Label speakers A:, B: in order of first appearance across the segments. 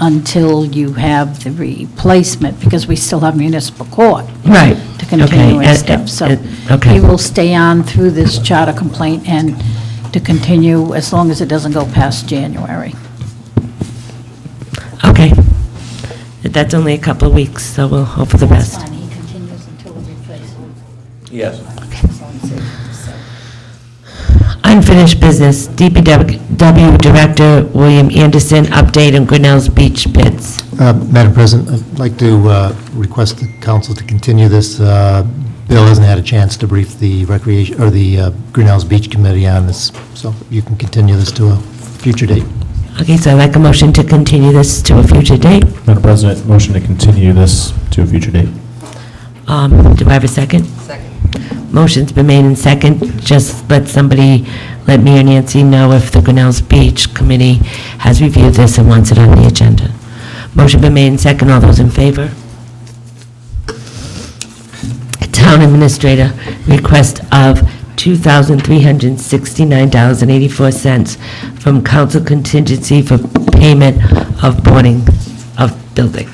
A: until you have the replacement, because we still have municipal court
B: Right.
A: to continue
B: Okay,
A: and
B: and-
A: stuff. So
B: and- okay.
A: he will stay on through this charter complaint and to continue as long as it doesn't go past January.
B: Okay. That's only a couple of weeks, so we'll hope for the
C: That's
B: best.
C: fine, he continues until the replacement.
D: Yes.
B: Unfinished business, DPW Director William Anderson, update on Grinnell's Beach bids.
E: Uh, Madam President, I'd like to uh, request the council to continue this. Uh, Bill hasn't had a chance to brief the recreation, or the uh, Grinnell's Beach Committee on this, so you can continue this to a future date.
B: Okay, so I'd like a motion to continue this to a future date.
F: Madam President, motion to continue this to a future date.
B: Um, Do I have a second? Second. Motion's been made in second. Just let somebody, let me or Nancy know if the Grinnell's Beach Committee has reviewed this and wants it on the agenda. Motion been made in second. All those in favor? Town Administrator, request of $2,369.84 from council contingency for payment of boarding of building.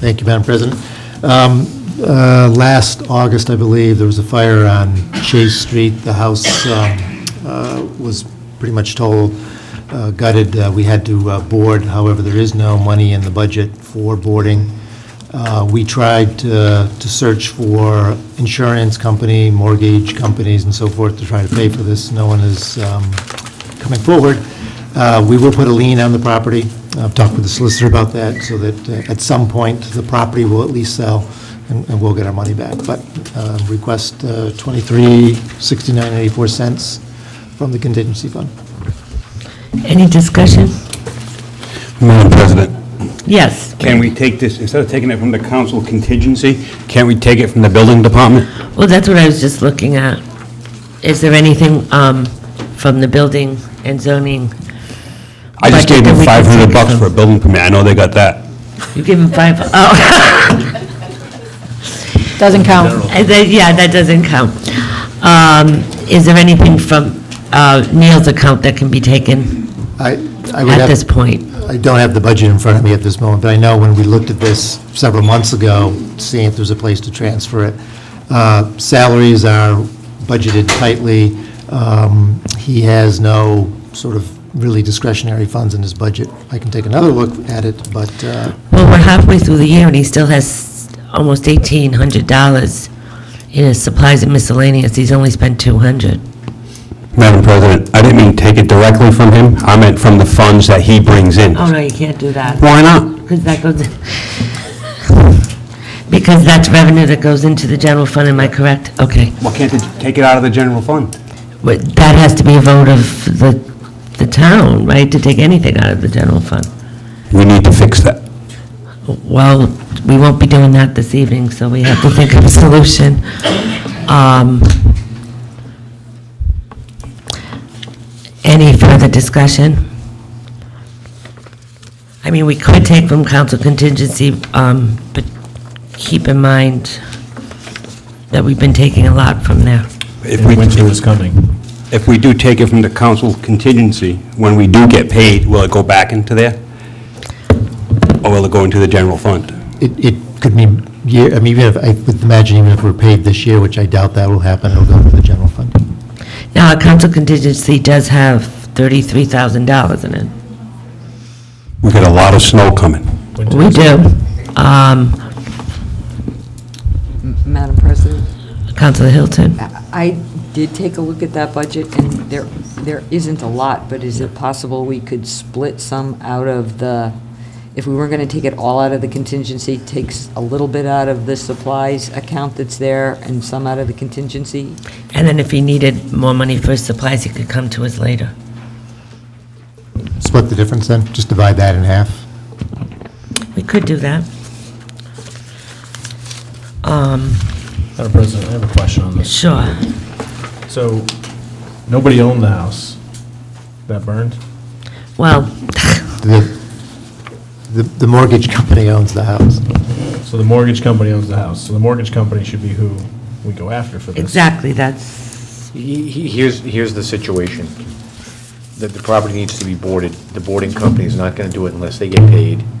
E: Thank you, Madam President. Um, uh, Last August, I believe, there was a fire on Chase Street. The house um, uh, was pretty much total, uh, gutted. Uh, We had to uh, board, however, there is no money in the budget for boarding. Uh, We tried to to search for insurance company, mortgage companies, and so forth to try to pay for this. No one is um, coming forward. Uh, We will put a lien on the property. I've talked with the solicitor about that, so that uh, at some point, the property will at least sell, and and we'll get our money back. But uh, request uh, 23 69 84 cents from the contingency fund.
B: Any discussion?
G: Madam President,
B: Yes.
G: can we take this, instead of taking it from the council contingency, can't we take it from the building department?
B: Well, that's what I was just looking at. Is there anything um, from the building and zoning?
G: I just gave them
B: Budget that we can
G: 500
B: take
G: bucks
B: from.
G: for a building permit, I know they got that.
B: You give them five, oh,
A: Doesn't count.
B: I said, yeah, that doesn't count. Um, Is there anything from uh, Neil's account that can be taken
E: I I would
B: at
E: have...
B: this point?
E: I don't have the budget in front of me at this moment, but I know when we looked at this several months ago, seeing if there's a place to transfer it, uh, salaries are budgeted tightly. Um, He has no sort of really discretionary funds in his budget. I can take another look at it, but uh,
B: Well, we're halfway through the year and he still has almost $1,800 in his supplies and miscellaneous. He's only spent 200.
G: Madam President, I didn't mean take it directly from him, I meant from the funds that he brings in.
B: Oh, no, you can't do that.
G: Why not?
B: Because that goes, because that's revenue that goes into the general fund, am I correct? Okay.
G: Why can't they take it out of the general fund?
B: But that has to be a vote of the, the town, right, to take anything out of the general fund?
G: We need to fix that.
B: Well, we won't be doing that this evening, so we have to think of a solution. Um, Any further discussion? I mean, we could take from council contingency, um, but keep in mind that we've been taking a lot from there.
G: If
F: And
G: we,
F: winter is coming.
G: if we do take it from the council contingency, when we do get paid, will it go back into there? Or will it go into the general fund?
E: it it could be, year- I mean, even if, I would imagine even if we're paid this year, which I doubt that will happen, it'll go to the general fund.
B: Now, our council contingency does have $33,000 in it.
G: We got a lot of snow coming.
F: Winter
B: We
F: is-
B: do. Um,
H: Madam President,
B: Councilor Hilton?
H: I did take a look at that budget, and there, there isn't a lot, but is it possible we could split some out of the, if we weren't going to take it all out of the contingency, takes a little bit out of the supplies account that's there and some out of the contingency?
B: And then if he needed more money for his supplies, he could come to us later.
E: Split the difference then, just divide that in half.
B: We could do that. Um,
F: Madam President, I have a question on this.
B: sure.
F: So, nobody owned the house that burned?
B: Well,
E: The the the mortgage company owns the house.
F: So the mortgage company owns the house, so the mortgage company should be who we go after for this.
B: exactly, that's,
I: He- he- Here's, here's the situation.
D: that the property needs to be boarded. The boarding company is not going to do it unless they get paid.